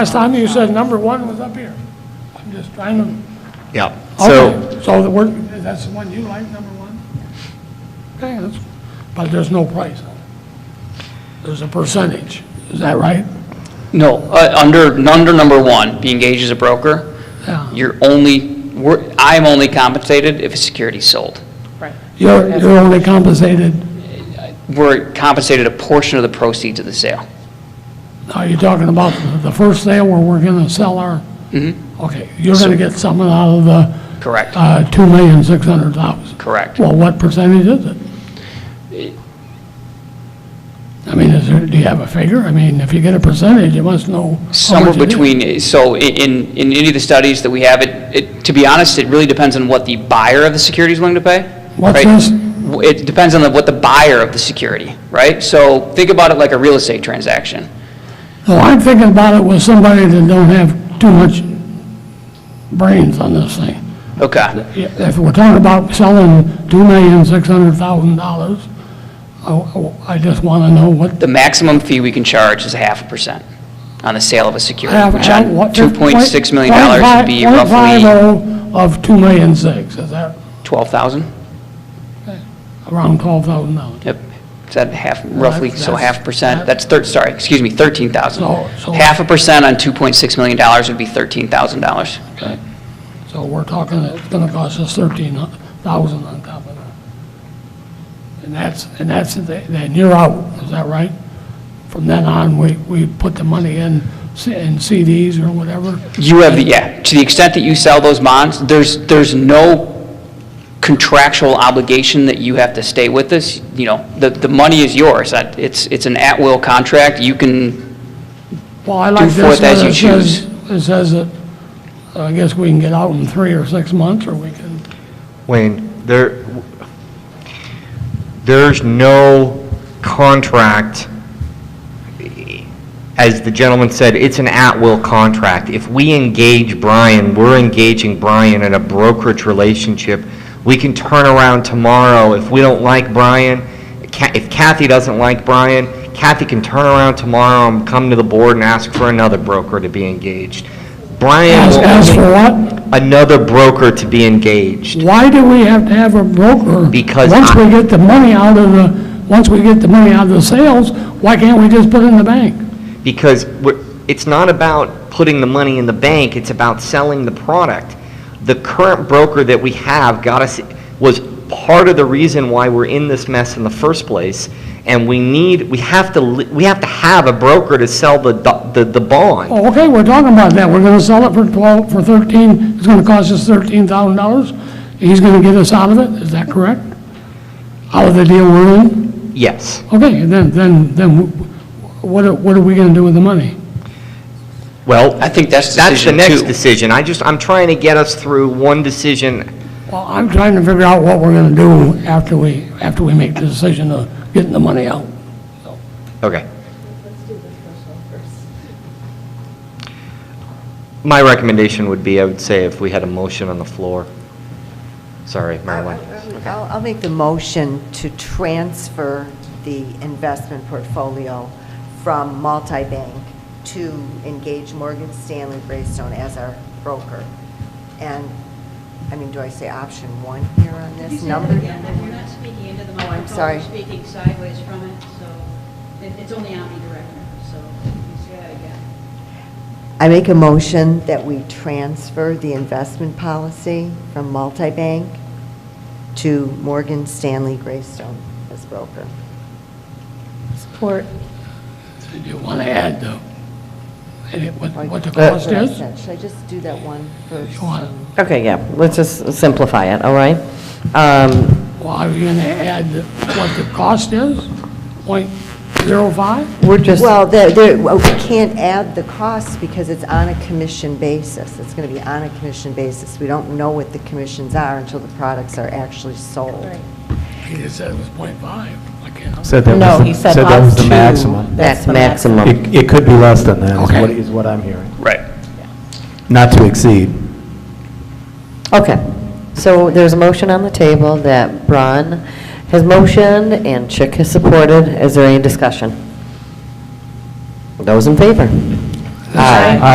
Last time you said number one was up here. I'm just trying to, Yeah. So, okay, so the work, that's the one you like, number one? Okay, that's, but there's no price on it. There's a percentage, is that right? No, uh, under, under number one, being engaged as a broker, Yeah. you're only, we're- I'm only compensated if a security's sold. Right. You're, you're only compensated, We're compensated a portion of the proceeds of the sale. are you talking about the first sale where we're gonna sell our? Okay, you're gonna get something out of the? Correct. Uh, two million, six hundred thousand. Correct. Well, what percentage is it? I mean, is there, do you have a figure? I mean, if you get a percentage, you must know. how Somewhere much it is. between, so i- in, in any of the studies that we have, it, it, to be honest, it really depends on what the buyer of the security is willing to pay. What's right? this? W- It depends on the- what the buyer of the security, right? So think about it like a real estate transaction. No, Oh, I'm thinking about it with somebody that don't have too much brains on this thing. Okay. If we're talking about selling two million, six hundred thousand dollars, I, I just want to know what The maximum fee we can charge is a half a percent on the sale of a security, Have- which have on Uh, what- $2.6 million dollars would be 0.5 roughly 0.50 of two million six, is that 12,000? around twelve thousand dollars? Yep. Is that half, roughly, so that's- half percent, that's thir, sorry, excuse me, So- 13,000. so- Half a percent on $2.6 million dollars would be $13,000. Okay, so we're talking, it's gonna cost us thirteen thousand on top of that. And that's, and that's, then you're out, is that right? From then on, we, we put the money in, C- in CDs or whatever? You have the, yeah, to the extent that you sell those bonds, there's, there's no contractual obligation that you have to stay with us. You know, the, the money is yours. That- It's, it's an at-will contract. You can Well, I like forth this, one. as you it says, it says that, uh, I guess we can get out in three or six months, or we can, Wayne, there, there's no contract, as the gentleman said, it's an at-will contract. If we engage Brian, we're engaging Brian in a brokerage relationship. We can turn around tomorrow if we don't like Brian, Ca- if Kathy doesn't like Brian, Kathy can turn around tomorrow and come to the board and ask for another broker to be engaged. Brian ask, will ask for only- what? another broker to be engaged. Why do we have to have a broker? Because Once I- we get the money out of the, once we get the money out of the sales, why can't we just put it in the bank? Because we're- it's not about putting the money in the bank, it's about selling the product. The current broker that we have got us, was part of the reason why we're in this mess in the first place. And we need, we have to, li- we have to have a broker to sell the, do- the, the bond. Oh, okay, we're talking about that, we're gonna sell it for twelve, for thirteen, it's gonna cost us thirteen thousand dollars, he's gonna get us out of it, is that correct? Out of the deal we're in? Yes. Okay, then, then, then what are, what are we gonna do with the money? Well, I think that's that's the decision next two. decision. I just, I'm trying to get us through one decision. Well, I'm trying to figure out what we're gonna do after we, after we make the decision of getting the money out. Okay. My recommendation would be, I would say if we had a motion on the floor. Sorry, Marilyn. I'll, I'll make the motion to transfer the investment portfolio from multi-bank to engage Morgan Stanley Greystone as our broker. And, I mean, do I say option one here on Could you this say that number? again? If You're not speaking into the microphone. sorry. You're speaking sideways from it, so it- it's only omnidirectional, so you say that again. I make a motion that we transfer the investment policy from multi-bank to Morgan Stanley Greystone as broker. Support. Do you wanna add the, and it- what, what the Or- cost Uh, is? Should uh, I just do that one first? You wanna- Okay, yeah, let's just simplify it, all right? Um, Well, are you gonna add what the cost is? Point zero five? We're just, Well, there, there, well, we can't add the costs because it's on a commission basis. It's going to be on a commission basis. We don't know what the commissions are until the products are actually sold. He just said it was point five. I can't. Said that No, he was, the- said said that was up the to. maximum. That's that's the maximum. maximum. It, it could be less than that, is Okay. what, is what I'm hearing. Right. Not to exceed. Okay, so there's a motion on the table that Braun has motioned and Chick has supported. Is there any discussion? Those in favor? Aye.